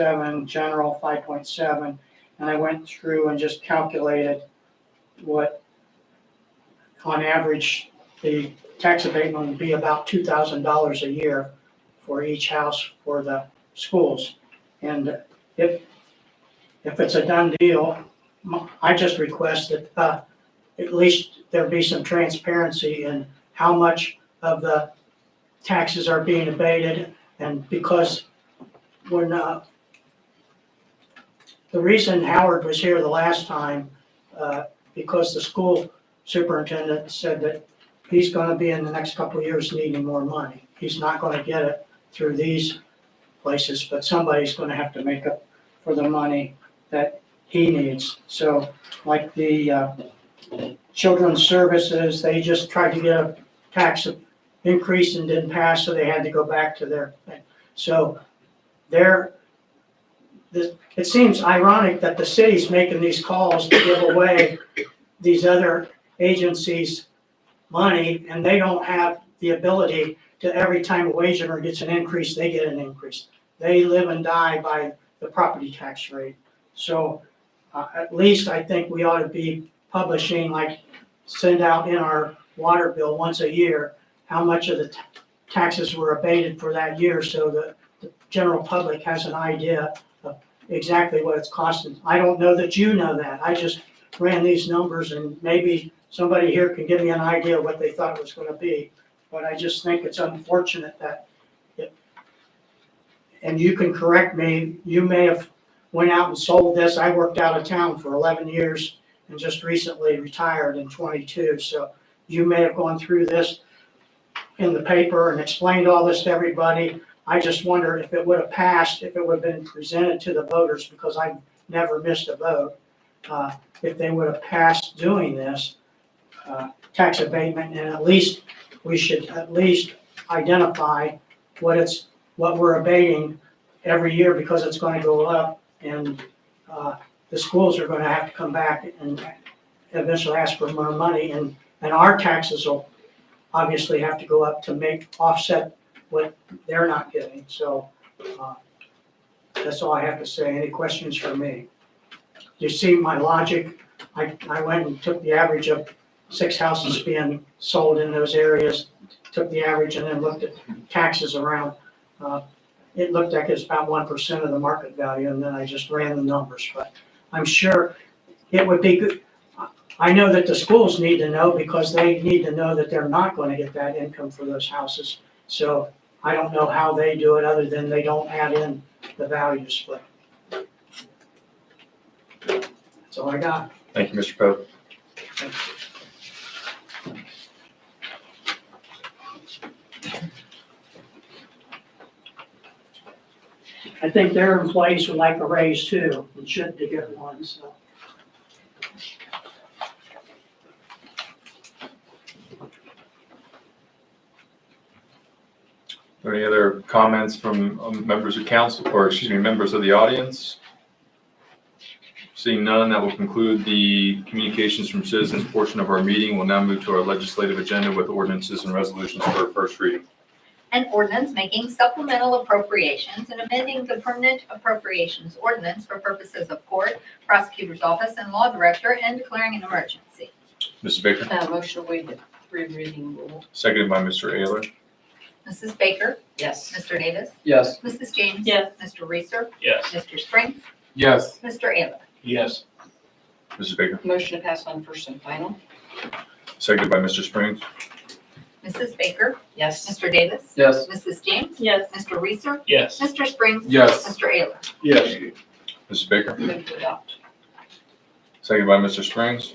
seven, general five point seven. And I went through and just calculated what, on average, the tax abatement would be about two thousand dollars a year for each house for the schools. And if, if it's a done deal, m- I just request that, uh, at least there be some transparency in how much of the taxes are being abated. And because when, uh, the reason Howard was here the last time, uh, because the school superintendent said that he's gonna be in the next couple of years needing more money. He's not gonna get it through these places, but somebody's gonna have to make up for the money that he needs. So like the, uh, children's services, they just tried to get a tax increase and didn't pass, so they had to go back to their thing. So there, this, it seems ironic that the city's making these calls to give away these other agencies money, and they don't have the ability to, every time a wage earner gets an increase, they get an increase. They live and die by the property tax rate. So, uh, at least I think we ought to be publishing, like, send out in our water bill once a year, how much of the ta- taxes were abated for that year, so that the general public has an idea of exactly what it's costing. I don't know that you know that, I just ran these numbers, and maybe somebody here can give me an idea of what they thought it was gonna be. But I just think it's unfortunate that it, and you can correct me, you may have went out and sold this, I worked out of town for eleven years and just recently retired in twenty-two, so you may have gone through this in the paper and explained all this to everybody. I just wonder if it would have passed, if it would have been presented to the voters, because I never missed a vote. Uh, if they would have passed doing this, uh, tax abatement, and at least, we should at least identify what it's, what we're abating every year, because it's gonna go up, and, uh, the schools are gonna have to come back and eventually ask for more money, and, and our taxes will obviously have to go up to make, offset what they're not getting, so, uh, that's all I have to say, any questions for me? you see my logic? I, I went and took the average of six houses being sold in those areas, took the average and then looked at taxes around. Uh, It looked like it's about one percent of the market value, and then I just ran the numbers, but I'm sure it would be good. I know that the schools need to know because they need to know that they're not gonna get that income for those houses. So I don't know how they do it, other than they don't add in the values, but that's all I got. Thank you, Mr. Pope. I think their employees would like a raise too, and should to get one, so. Any other comments from um, members of council, or excuse me, members of the audience? Seeing none, that will conclude the communications from citizens portion of our meeting. We'll now move to our legislative agenda with ordinances and resolutions for first reading. An ordinance making supplemental appropriations and amending the permanent appropriations ordinance for purposes of court, prosecutor's office, and law director, and declaring an emergency. Mrs. Baker, Uh, motion to waive the three reading rule. seconded by Mr. Ayler. Mrs. Baker? Yes. Mr. Davis? Yes. Mrs. James? Yes. Mr. Reeser? Yes. Mr. Spring? Yes. Mr. Ayler? Yes. Mrs. Baker, Motion to pass on first and final. seconded by Mr. Springs. Mrs. Baker? Yes. Mr. Davis? Yes. Mrs. James? Yes. Mr. Reeser? Yes. Mr. Spring? Yes. Mr. Ayler? Yes. Mrs. Baker, Move to adopt. seconded by Mr. Springs.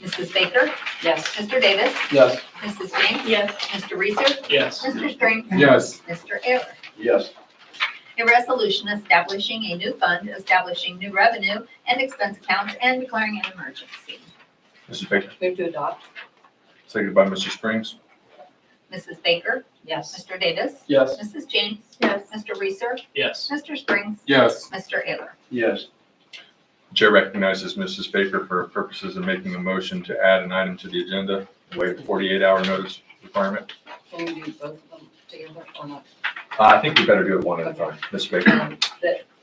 Mrs. Baker? Yes. Mr. Davis? Yes. Mrs. James? Yes. Mr. Reeser? Yes. Mr. Spring? Yes. Mr. Ayler? Yes. A resolution establishing a new fund, establishing new revenue and expense accounts, and declaring an emergency. Mrs. Baker, Move to adopt. seconded by Mr. Springs. Mrs. Baker? Yes. Mr. Davis? Yes. Mrs. James? Yes. Mr. Reeser? Yes. Mr. Springs? Yes. Mr. Ayler? Yes. Chair recognizes Mrs. Baker for purposes of making a motion to add an item to the agenda, waive the 48-hour notice requirement. Can we do both of them together or not? Uh, I think we better do it one at a time. Ms. Baker, Um,